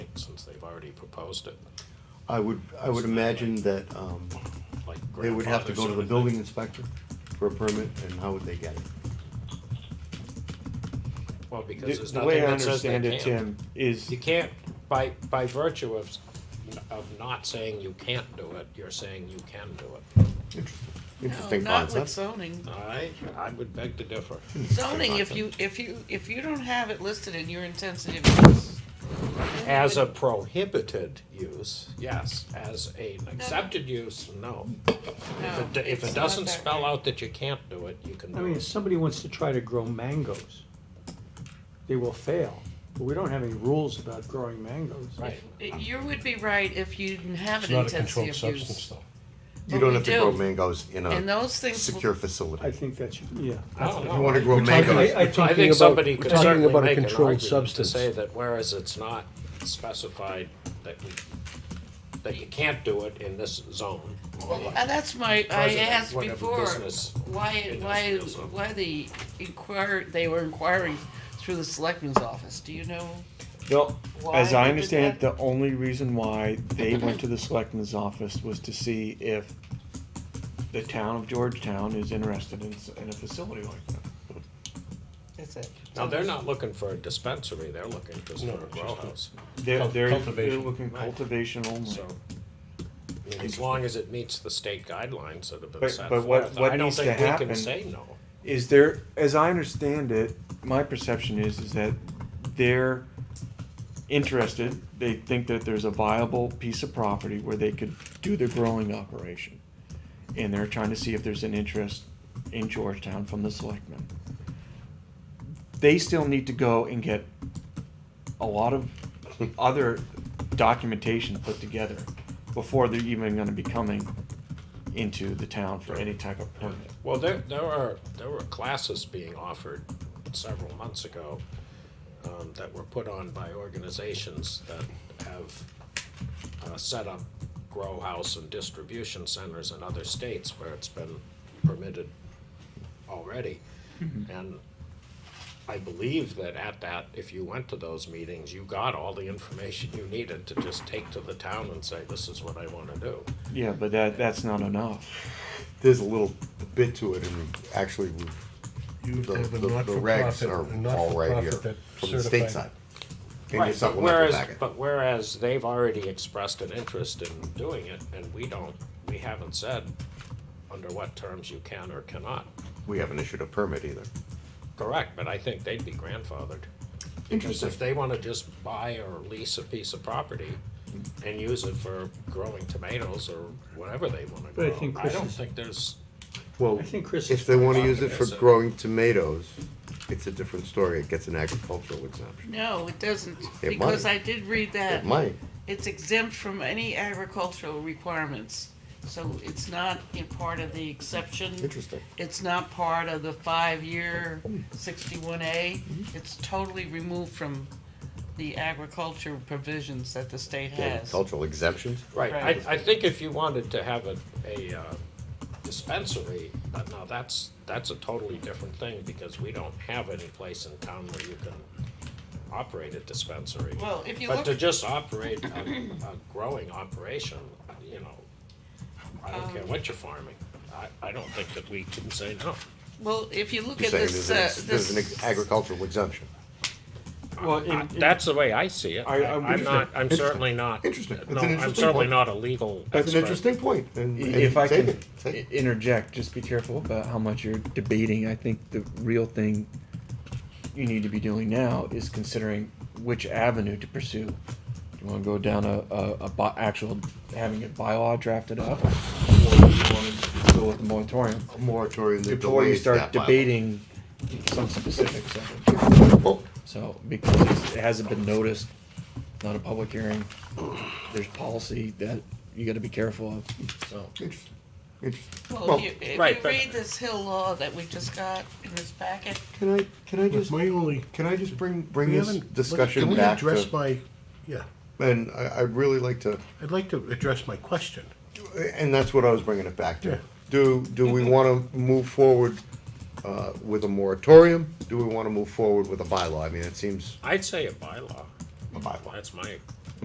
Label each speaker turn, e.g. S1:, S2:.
S1: they've already proposed it,
S2: I would, I would imagine that, um,
S1: like
S2: they would have to
S1: grandfathers
S2: go to the
S1: and-
S2: building inspector for a permit, and how would they get it?
S1: Well, because
S3: The
S1: there's
S3: the way
S1: nothing
S3: I
S1: that says they
S3: understand it,
S1: can't.
S3: Tim, is,
S1: You can't, by, by virtue of, of not saying you can't do it, you're saying you can do it.
S2: Interesting
S4: No, not with
S2: concept.
S4: zoning.
S1: I, I would beg to differ.
S4: Zoning, if you, if you, if you don't have it listed in your intensive use.
S1: As a prohibited use, yes. As an accepted use, no. If
S4: No,
S1: it, if
S4: it's
S1: it
S4: not
S1: doesn't
S4: that
S1: spell
S4: way.
S1: out that you can't do it, you can
S5: I
S1: do
S5: mean, if
S1: it.
S5: somebody wants to try to grow mangoes, they will fail. But we don't have any rules about growing mangoes.
S1: Right.
S4: You would be right if you didn't have
S6: It's
S4: an
S6: not a controlled
S4: intensive
S6: substance
S4: use.
S6: though.
S2: You
S4: But
S2: don't
S4: we
S2: have to
S4: do.
S2: grow mangoes in
S4: And
S2: a
S4: those things,
S2: secure
S5: I
S2: facility.
S5: think that should, yeah.
S1: I don't
S2: If you
S1: know.
S2: wanna grow
S5: I- I
S2: mangoes,
S5: think
S1: I
S5: you're
S1: think
S5: about-
S1: somebody could
S6: talking
S1: certainly
S6: about a
S1: make an
S6: controlled
S1: argument to
S6: substance.
S1: say that whereas it's not specified that we, that you can't do it in this zone.
S4: well, and Uh, that's my, I
S1: President,
S4: asked
S1: whatever
S4: before,
S1: business
S4: why, why,
S1: industrial zone.
S4: why the inquire, they were inquiring through the selectman's office, do you know?
S3: no,
S4: Why
S3: as
S4: they
S3: I
S4: did
S3: understand it, the only reason why they went to the selectman's office was to see if the town of Georgetown is interested in, s- in a facility like that.
S4: That's it.
S1: Now, they're not looking for a dispensary, they're looking just for a grow house.
S3: They're,
S6: Cul-
S3: they're, they're
S6: cultivation.
S3: looking
S1: Right.
S3: cultivation only.
S1: So, I mean, as long as it meets the state guidelines that have been
S3: But-
S1: set
S3: but what-
S1: forth,
S3: what
S1: I don't
S3: needs to
S1: think we can
S3: happen-
S1: say no.
S3: Is there, as I understand it, my perception is, is that they're interested, they think that there's a viable piece of property where they could do their growing operation. And they're trying to see if there's an interest in Georgetown from the selectmen. They still need to go and get a lot of other documentation put together before they're even gonna be coming into the town for any type of permit.
S1: Well, there, there are, there were classes being offered several months ago um, that were put on by organizations that have uh, set up grow house and distribution centers in other states where it's been permitted already. And I believe that at that, if you went to those meetings, you got all the information you needed to just take to the town and say, this is what I want to do.
S3: Yeah, but that, that's not enough.
S2: There's a little bit to it, and actually, we've
S6: You
S2: the,
S6: have a
S2: the, the regs
S6: not-for-profit,
S2: are
S6: a
S2: all right here,
S6: not-for-profit that
S2: from the state
S6: certified-
S2: side. In your
S1: Right, but
S2: supplemental
S1: whereas,
S2: packet.
S1: but whereas they've already expressed an interest in doing it, and we don't, we haven't said under what terms you can or cannot.
S2: We haven't issued a permit either.
S1: Correct, but I think they'd be grandfathered. Because
S2: Interesting.
S1: if they wanna just buy or lease a piece of property and use it for growing tomatoes or whatever they wanna
S5: But I
S1: grow,
S5: think
S1: I
S5: Chris
S1: don't
S5: is-
S1: think there's,
S2: Well,
S5: I think Chris
S2: if
S5: is
S2: they wanna use it for
S1: Yes, sir.
S2: growing tomatoes, it's a different story. It gets an agricultural exemption.
S4: No, it doesn't,
S2: It
S4: because
S2: might.
S4: I did read that.
S2: It might.
S4: It's exempt from any agricultural requirements, so it's not in part of the exception.
S2: Interesting. Oh.
S4: It's not part of the five-year sixty-one A.
S2: Mm-hmm.
S4: It's totally removed from the agriculture provisions that the state has.
S2: Agricultural exemptions?
S1: right,
S4: Right.
S1: I, I think if you wanted to have a, a uh, dispensary, but now that's, that's a totally different thing, because we don't have any place in town where you can operate a dispensary.
S4: Well, if you
S1: But
S4: look,
S1: to just operate a, a growing operation, you know, I don't
S4: Um,
S1: care what you're farming, I, I don't think that we can say no.
S4: well, if you look
S2: You're
S4: at
S2: saying
S4: this,
S2: there's
S4: uh,
S2: an,
S4: this.
S2: ex- there's an ex- agricultural exemption.
S3: Well, in,
S2: Ah,
S1: I- That's the way I see it.
S3: I-
S1: I,
S3: I
S1: I'm
S3: wouldn't-
S1: not, I'm certainly not.
S2: Interesting. It's an
S1: No, I'm
S2: interesting
S1: certainly
S2: point.
S1: not a legal expert.
S2: That's an interesting point, and, and
S3: if I
S2: take
S3: can e-
S2: it, take it.
S3: interject, just be careful about how much you're debating. I think the real thing you need to be doing now is considering which avenue to pursue. Do you want to go down a, a, a bi- actual having a bylaw drafted up, or do you want to go with the moratorium
S2: A moratorium that
S3: before you
S2: delays
S3: start
S2: that bylaw.
S3: debating some specifics of it?
S2: Oh,
S3: So, because it's- it hasn't been noticed, not a public hearing, there's policy that you gotta be careful of, so.
S2: interesting, interesting.
S4: Well,
S2: Well,
S4: if you,
S1: right,
S4: if you
S1: but-
S4: read this Hill law that we just got in this packet,
S2: Can I, can I
S6: But
S2: just,
S6: my only,
S2: can I just bring, bring
S6: we
S2: this
S6: haven't, can
S2: discussion
S6: we
S2: back
S6: address
S2: to,
S6: my, yeah,
S2: and I, I'd really like to
S6: I'd like to address my question.
S2: And that's what I was bringing it back
S6: Yeah.
S2: to. Do, do we want to move forward uh, with a moratorium? Do we want to move forward with a bylaw? I mean, it seems
S1: I'd say a bylaw,
S2: a bylaw.
S1: that's my